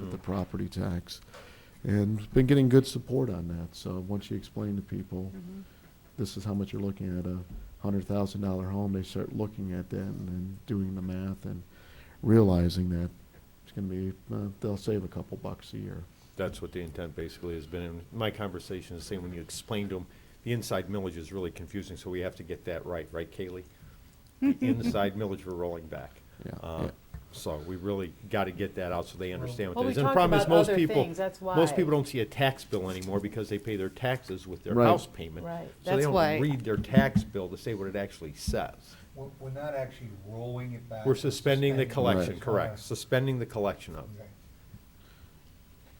Mm. the property tax. And been getting good support on that, so once you explain to people, Mm-hmm. this is how much you're looking at, a hundred thousand dollar home, they start looking at that and then doing the math and realizing that it's gonna be, uh, they'll save a couple bucks a year. That's what the intent basically has been. And my conversation is saying, when you explain to them, the inside millage is really confusing, so we have to get that right, right, Kaylee? The inside millage, we're rolling back. Yeah, Uh, yeah. So we really got to get that out so they understand Well, what that we is. And the talked problem is about most other people- things, that's Most why. people don't see a tax bill anymore because they pay their taxes with their Right. house payment. Right. So they That's why- don't read their tax bill to say what it actually says. We're, we're not actually rolling it back. We're suspending the collection, Right. correct, suspending the collection of. it. Okay.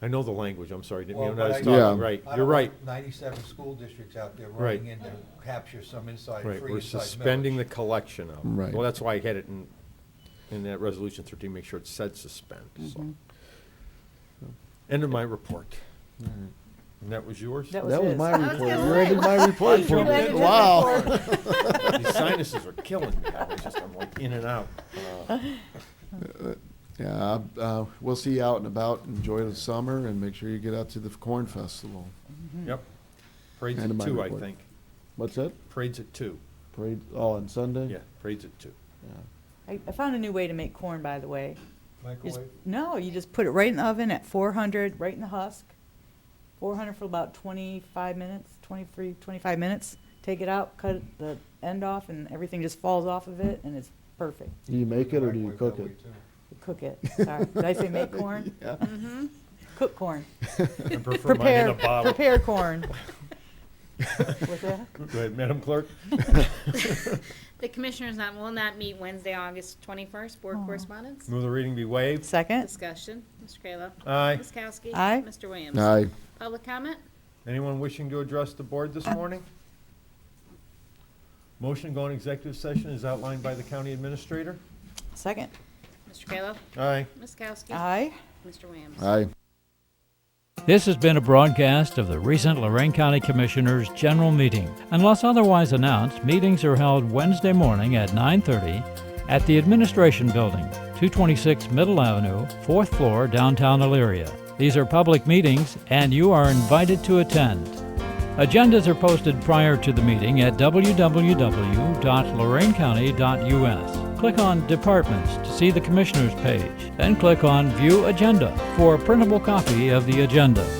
I know the language, I'm sorry, didn't Well, mean but I was I- Yeah. talking, right, I you're don't right. want Ninety-seven school districts out there Right. running in to capture some inside, free Right, inside millage. we're suspending the collection of. Right. Well, that's why I had it in, in that resolution thirteen, make sure it said suspend, Mm-hmm. so. End of my report. And that was yours? That That was his. my report, gonna you ended my report for You ended me, his wow. report. These sinuses are killing me, I was just, I'm like in and out. Uh, Yeah, uh, we'll see you out and about, enjoy the summer, and make sure you get out to the Corn Festival. Yep. Parade's End of at my two, I report. think. What's that? Parade's at two, Parade, oh, on Sunday? yeah, parade's at two. Yeah. I, I found a new way to make corn, by the way. You just- Microwave? no, you just put it right in the oven at 400, right in the husk. 400 for about 25 minutes, 23, 25 minutes. Take it out, cut the end off, and everything just falls off of it, and it's perfect. Do you make it or do you Microwave cook that way, it? too. Cook it. Sorry, did I say make corn? Yeah. Cook corn. I prefer mine in Prepare, a bottle. prepare corn. What's that? Go ahead, Madam Clerk. The commissioners not- will not meet Wednesday, August 21st. Board Aw. correspondence? Move the reading be waived. Second. Discussion. Mr. Kayla? Aye. Ms. Kowski? Aye. Mr. Williams? Aye. Public comment? Anyone wishing to address the board this morning? Motion to go on executive session is outlined by the county administrator. Second. Mr. Kayla? Aye. Ms. Kowski? Aye. Mr. Williams? Aye. This has been a broadcast of the recent Lorraine County Commissioners' General Meeting. Unless otherwise announced, meetings are held Wednesday morning at 9:30 at the Administration Building, 226 Middle Avenue, 4th floor, downtown Elyria. These are public meetings, and you are invited to attend. Agendas are posted prior to the meeting at www.lorainecounty.us. Click on Departments to see the Commissioners page, then click on View Agenda for a printable copy of the agenda.